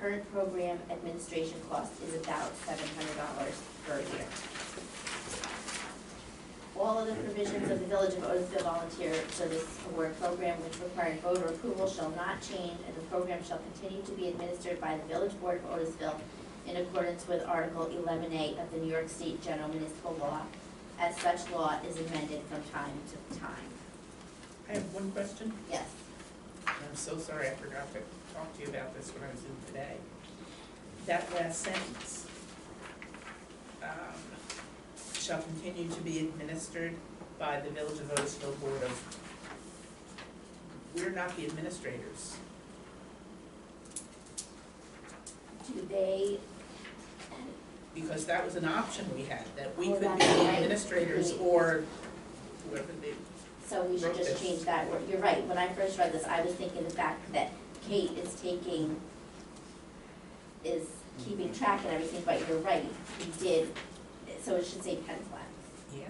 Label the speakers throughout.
Speaker 1: per program administration cost is about seven hundred dollars per year. All of the provisions of the Village of Otisville Volunteer Service Award Program which required voter approval shall not change, and the program shall continue to be administered by the Village Board of Otisville in accordance with Article eleven A of the New York State General Municipal Law, as such law is amended from time to time.
Speaker 2: I have one question.
Speaker 1: Yes,
Speaker 2: I'm so sorry, I forgot to talk to you about this when I was in today. That last sentence, um, shall continue to be administered by the Village of Otisville Board of, we're not the administrators.
Speaker 1: do they,
Speaker 2: Because that was an option we had, that we
Speaker 1: Well,
Speaker 2: could be
Speaker 1: Oh, that's
Speaker 2: the
Speaker 1: right.
Speaker 2: administrators or whoever they,
Speaker 1: so we should just change that word, you're right, when I first read this, I was thinking the fact that Kate is taking, is keeping
Speaker 3: Mm-hmm.
Speaker 1: track and everything, but you're right, we did, so it should say Penn Flat.
Speaker 2: yeah,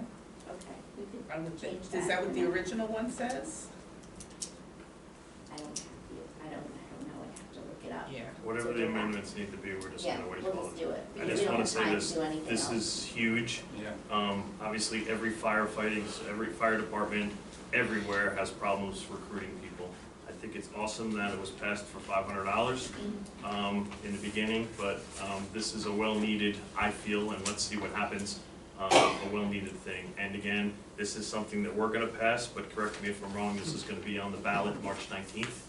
Speaker 1: Okay, we could,
Speaker 2: I would think,
Speaker 1: Change
Speaker 2: is
Speaker 1: that.
Speaker 2: that what the original one says?
Speaker 1: I don't have the, I don't, I don't know, I'd have to look it up.
Speaker 2: Yeah.
Speaker 3: Whatever the amendments need to be, we're just
Speaker 1: Yeah,
Speaker 3: gonna wait
Speaker 1: we'll
Speaker 3: till
Speaker 1: just do it.
Speaker 3: I
Speaker 1: We
Speaker 3: just
Speaker 1: don't
Speaker 3: wanna
Speaker 1: have
Speaker 3: say
Speaker 1: time
Speaker 3: this-
Speaker 1: do anything
Speaker 3: This
Speaker 1: else.
Speaker 3: is huge.
Speaker 4: Yeah.
Speaker 3: Um, obviously, every firefighting, every fire department, everywhere has problems recruiting people. I think it's awesome that it was passed for five hundred dollars, um, in the beginning, but, um, this is a well-needed, I feel, and let's see what happens, um, a well-needed thing. And again, this is something that we're gonna pass, but correct me if I'm wrong, this is gonna be on the ballot March nineteenth.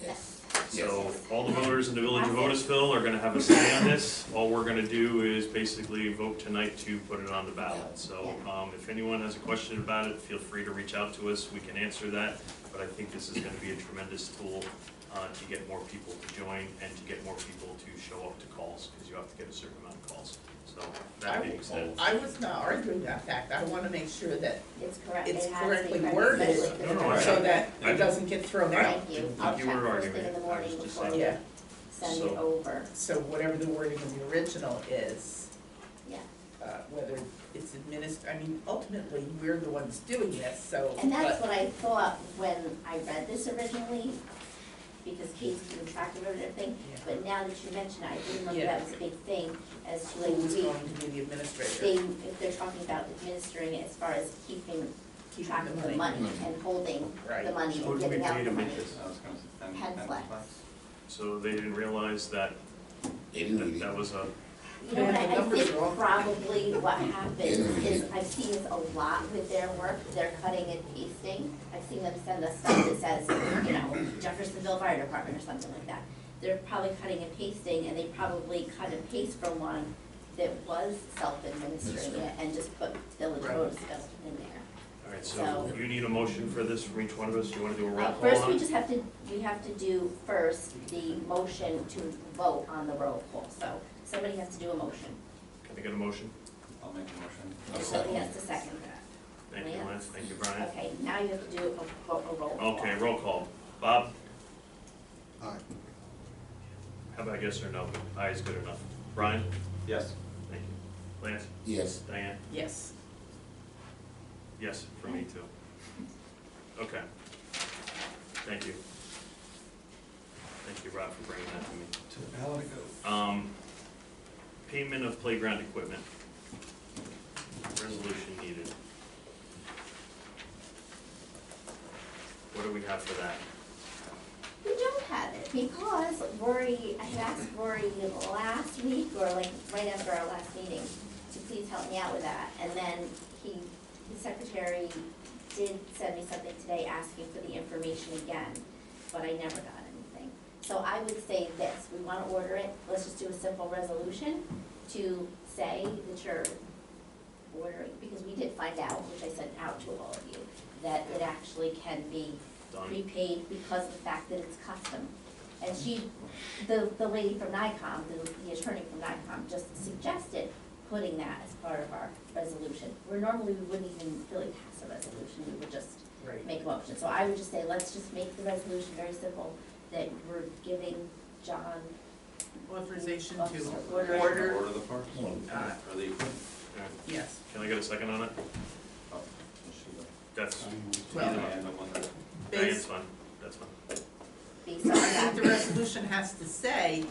Speaker 1: Yes.
Speaker 3: So all the voters in the village of
Speaker 1: Yes.
Speaker 3: Otisville are gonna have a say on this. All we're gonna do is basically vote tonight to put it on the ballot. So, um, if anyone has a question about it, feel free to reach out to us, we can answer that. But I think this is gonna be a tremendous tool, uh, to get more people to join and to get more people to show up to calls, because you have to get a certain amount of calls. So, that being said,
Speaker 2: I was not arguing that fact, I wanna make sure that
Speaker 1: It's correct.
Speaker 2: It's
Speaker 1: It has to be
Speaker 2: correctly
Speaker 1: correct,
Speaker 2: worded.
Speaker 1: exactly, 'cause
Speaker 3: No, no,
Speaker 1: it's-
Speaker 2: so that it doesn't get thrown out.
Speaker 1: Thank you.
Speaker 3: I
Speaker 1: I'll
Speaker 3: think you
Speaker 1: check
Speaker 3: were
Speaker 1: first
Speaker 3: arguing
Speaker 1: thing in the
Speaker 3: it. I
Speaker 1: morning
Speaker 3: was just
Speaker 1: before we
Speaker 2: Yeah,
Speaker 1: send it
Speaker 3: So-
Speaker 1: over.
Speaker 2: so whatever the wording of the original is,
Speaker 1: Yeah.
Speaker 2: uh, whether it's administered, I mean, ultimately, we're the ones doing this, so.
Speaker 1: And that's
Speaker 2: but-
Speaker 1: what I thought when I read this originally, because Kate's keeping track of everything.
Speaker 2: Yeah.
Speaker 1: But now that you mention it, I didn't know
Speaker 2: Yeah.
Speaker 1: that was a big thing as to like,
Speaker 2: Who's
Speaker 1: we,
Speaker 2: going to be the
Speaker 1: they,
Speaker 2: administrator?
Speaker 1: if they're talking about administering it as far as keeping
Speaker 2: Keeping
Speaker 1: track of the money and holding the
Speaker 2: Right.
Speaker 1: money
Speaker 5: Who
Speaker 1: and
Speaker 5: do we
Speaker 1: giving out
Speaker 5: pay
Speaker 1: the
Speaker 5: to
Speaker 1: money.
Speaker 5: make this? I was gonna say, ten-
Speaker 1: Pen
Speaker 5: ten
Speaker 1: flex.
Speaker 5: bucks.
Speaker 3: so they didn't realize that,
Speaker 6: They didn't
Speaker 3: that
Speaker 6: need it.
Speaker 3: that was a,
Speaker 1: You know, what
Speaker 2: Yeah, the
Speaker 1: I
Speaker 2: numbers
Speaker 1: think
Speaker 2: are all-
Speaker 1: probably what happens is, I've seen this a lot with their work, they're cutting and pasting. I've seen them send us stuff that says, you know, Jeffersonville Fire Department or something like that. They're probably cutting and pasting, and they probably cut and paste from one that was self-administering it and just put Village
Speaker 2: Right.
Speaker 1: Roseville in there.
Speaker 3: all right,
Speaker 1: So-
Speaker 3: so you need a motion for this from each one of us? You wanna do a roll
Speaker 1: Uh,
Speaker 3: call on it?
Speaker 1: First, we just have to, we have to do first the motion to vote on the roll call, so somebody has to do a motion.
Speaker 3: Can I get a motion?
Speaker 5: I'll make a motion.
Speaker 6: I'll
Speaker 1: Somebody
Speaker 6: second.
Speaker 1: has to second that.
Speaker 3: Thank you, Lance, thank you, Brian.
Speaker 1: Okay, now you have to do a, ro- a roll call.
Speaker 3: Okay, roll call. Bob,
Speaker 6: All right.
Speaker 3: how about yes or no? Aye is good enough. Brian?
Speaker 5: Yes.
Speaker 3: Thank you. Lance?
Speaker 6: Yes,
Speaker 3: Diane?
Speaker 2: Yes,
Speaker 3: Yes, for me too. Okay. Thank you. Thank you, Rob, for bringing that to me.
Speaker 7: To the ballot it goes.
Speaker 3: Um, payment of playground equipment. Resolution needed. What do we have for that?
Speaker 1: We don't have it because Rory, I had asked Rory last week or like right after our last meeting to please help me out with that. And then he, the secretary did send me something today asking for the information again, but I never got anything. So I would say this, we wanna order it, let's just do a simple resolution to say that you're ordering, because we did find out, which I sent out to all of you, that it actually can be
Speaker 3: Done?
Speaker 1: prepaid because of the fact that it's custom. And she, the, the lady from NICOM, the, the attorney from NICOM, just suggested putting that as part of our resolution. Where normally we wouldn't even really pass a resolution, we would just
Speaker 2: right.
Speaker 1: make a motion. So I would just say, let's just make the resolution very simple, that we're giving John,
Speaker 2: Authorization
Speaker 1: Officer,
Speaker 2: to
Speaker 1: order.
Speaker 2: order,
Speaker 5: Order the parts?
Speaker 6: Well,
Speaker 2: uh,
Speaker 5: Or the,
Speaker 3: Alright.
Speaker 2: yes,
Speaker 3: Can I get a second on it?
Speaker 5: oh, should
Speaker 3: That's,
Speaker 5: Um, I?
Speaker 2: Well-
Speaker 5: Either I end up with it.
Speaker 3: Diane's
Speaker 2: based,
Speaker 3: fine, that's fine.
Speaker 1: based on
Speaker 2: I
Speaker 1: that.
Speaker 2: think the resolution has to say